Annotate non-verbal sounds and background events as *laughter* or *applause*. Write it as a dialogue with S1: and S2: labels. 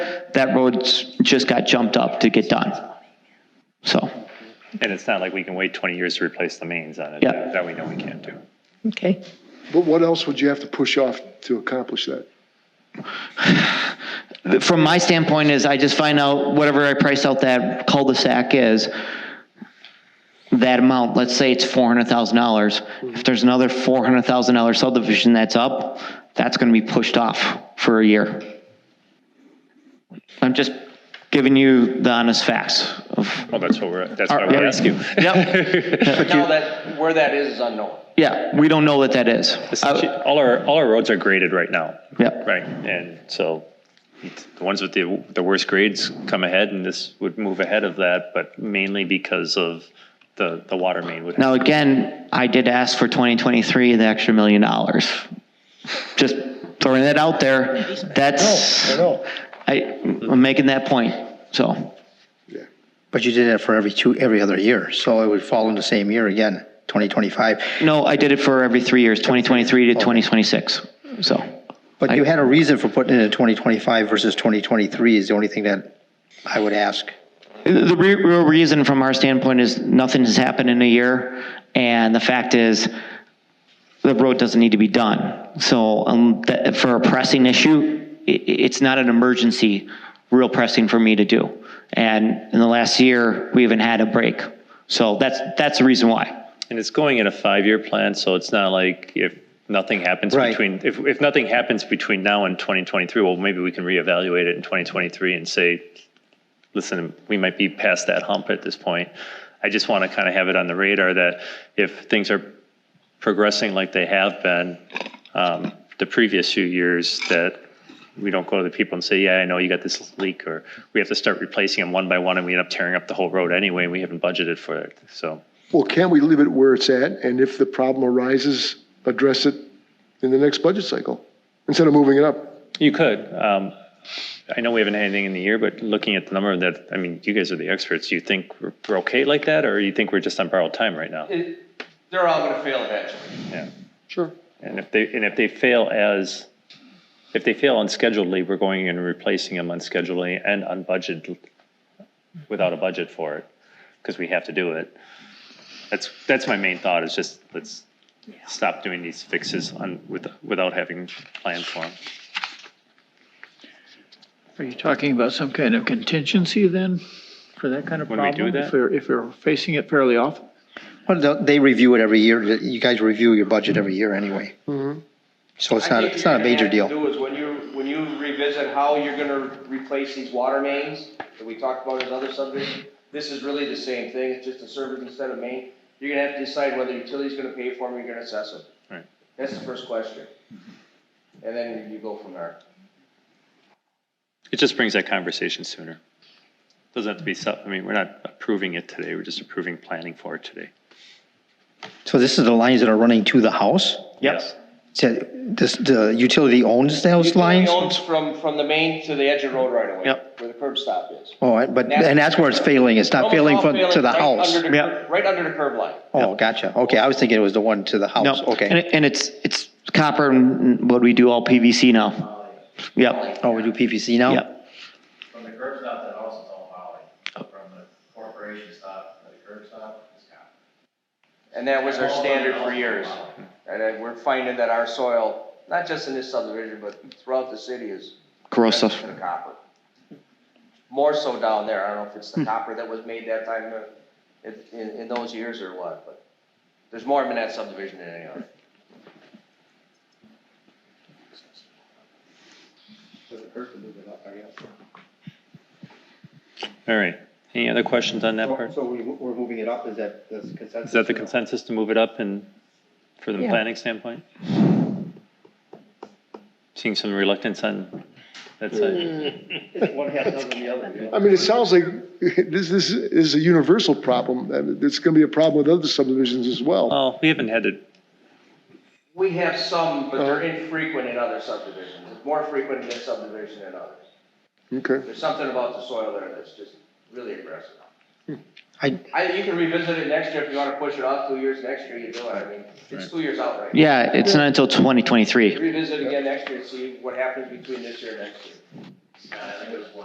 S1: that road's just got jumped up to get done. So,
S2: And it's not like we can wait 20 years to replace the mains on it.
S1: Yeah.
S2: That we know we can't do.
S3: Okay.
S4: But what else would you have to push off to accomplish that?
S1: from my standpoint is I just find out whatever I price out that cul-de-sac is, that amount, let's say it's four hundred thousand dollars. If there's another four hundred thousand dollar subdivision that's up, that's gonna be pushed off for a year. I'm just giving you the honest facts of,
S2: Well, that's what we're, that's
S1: Are-
S2: what I
S1: yeah.
S2: would ask you.
S1: *laughs*
S2: *laughs*
S1: Yep.
S5: Now that, where that is is unknown.
S1: yeah, we don't know what that is. Uh,
S2: All our, all our roads are graded right now.
S1: Yep.
S2: Right, and so it's- the ones with the, the worst grades come ahead and this would move ahead of that, but mainly because of the, the water main would.
S1: Now, again, I did ask for 2023, the extra million dollars. Just throwing that out there. That's,
S4: know.
S1: I, I'm making that point, so.
S6: But you did that for every two, every other year, so it would fall in the same year again, 2025.
S1: No, I did it for every three years, 2023 to 2026, so.
S6: But you had a reason for putting it in 2025 versus 2023 is the only thing that I would ask.
S1: The re- real reason from our standpoint is nothing has happened in a year, and the fact is, the road doesn't need to be done. So um, that- for a pressing issue, i- i- it's not an emergency, real pressing for me to do. And in the last year, we haven't had a break. So that's, that's the reason why.
S2: And it's going in a five-year plan, so it's not like if nothing happens
S6: Right.
S2: between, if, if nothing happens between now and 2023, well, maybe we can reevaluate it in 2023 and say, listen, we might be past that hump at this point. I just want to kind of have it on the radar that if things are progressing like they have been um, the previous few years, that we don't go to the people and say, yeah, I know you got this leak, or we have to start replacing them one by one, and we end up tearing up the whole road anyway, and we haven't budgeted for it, so.
S4: Well, can we leave it where it's at? And if the problem arises, address it in the next budget cycle instead of moving it up?
S2: You could. Um, I know we haven't had anything in the year, but looking at the number that, I mean, you guys are the experts. Do you think we're we're okay like that, or you think we're just on borrowed time right now?
S5: It- They're all gonna fail eventually.
S2: Yeah.
S5: Sure.
S2: And if they, and if they fail as, if they fail unscheduledly, we're going and replacing them unscheduledly and unbudgeted, without a budget for it, because we have to do it. That's, that's my main thought, is just, let's stop doing these fixes on, with, without having planned for them.
S7: Are you talking about some kind of contingency then for that kind of
S2: When we
S7: problem?
S2: do that?
S7: If we're, if we're facing it fairly often?
S6: Well, they- they review it every year, you guys review your budget every year anyway.
S1: Mm-hmm.
S6: So it's not, it's not a major deal.
S5: I think what you're gonna have to do is when you, when you revisit how you're gonna replace these water mains that we talked about as other subdivisions, this is really the same thing, it's just a service instead of main. You're gonna have to decide whether utility's gonna pay for them, or you're gonna assess them.
S2: Right.
S5: That's the first question. And then you go from there.
S2: It just brings that conversation sooner. Doesn't have to be, sub- I mean, we're not approving it today, we're just approving planning for it today.
S6: So this is the lines that are running to the house?
S2: Yes.
S6: So This, the utility owns those lines?
S5: Utility owns From, from the main to the edge of the road right away.
S1: Yep.
S5: Where the curb stop is.
S6: Oh, I- but, and that's where it's failing, it's not
S5: Almost
S6: failing
S5: all
S6: from, to the
S5: right
S6: house?
S5: under the
S1: Yeah.
S5: curb- Right under the curb line.
S6: Oh, gotcha, okay, I was thinking it was the one to the
S1: No,
S6: house,
S1: And
S6: okay.
S1: it- and it's, it's copper and what we do all PVC now. Yep,
S6: Oh, we do PVC now?
S1: yep.
S8: From the curb stop, that house is all Holly. From the corporation stop to the curb stop, it's Scott.
S5: And that was our standard for years. And then we're finding that our soil, not just in this subdivision, but throughout the city is.
S1: Corrosive.
S5: rich in copper. More so down there. I don't know if it's the copper that was made that time uh, in- in, in those years or what, but there's more of them in that subdivision than any other.
S2: All right. Any other questions on that part?
S6: So we, we're moving it up, is that the consensus?
S2: Is that the consensus to move it up and, for the
S3: Yeah.
S2: planning standpoint? Seeing some reluctance on that side.
S4: I mean, it sounds like *laughs* this, this is a universal problem. and It's going to be a problem with other subdivisions as well.
S2: Well, we haven't had it,
S5: We have some, but they're infrequent in other subdivisions. It's more frequent in this subdivision than others.
S4: Okay.
S5: There's something about the soil there that's just really aggressive.
S6: I,
S5: I, you can revisit it next year if you wanna push it off two years, next year you do it, I mean, it's two years out right now.
S1: Yeah, it's not until 2023.
S5: Revisit again next year and see what happens between this year and next year.
S8: Scott, Uh, I think it was one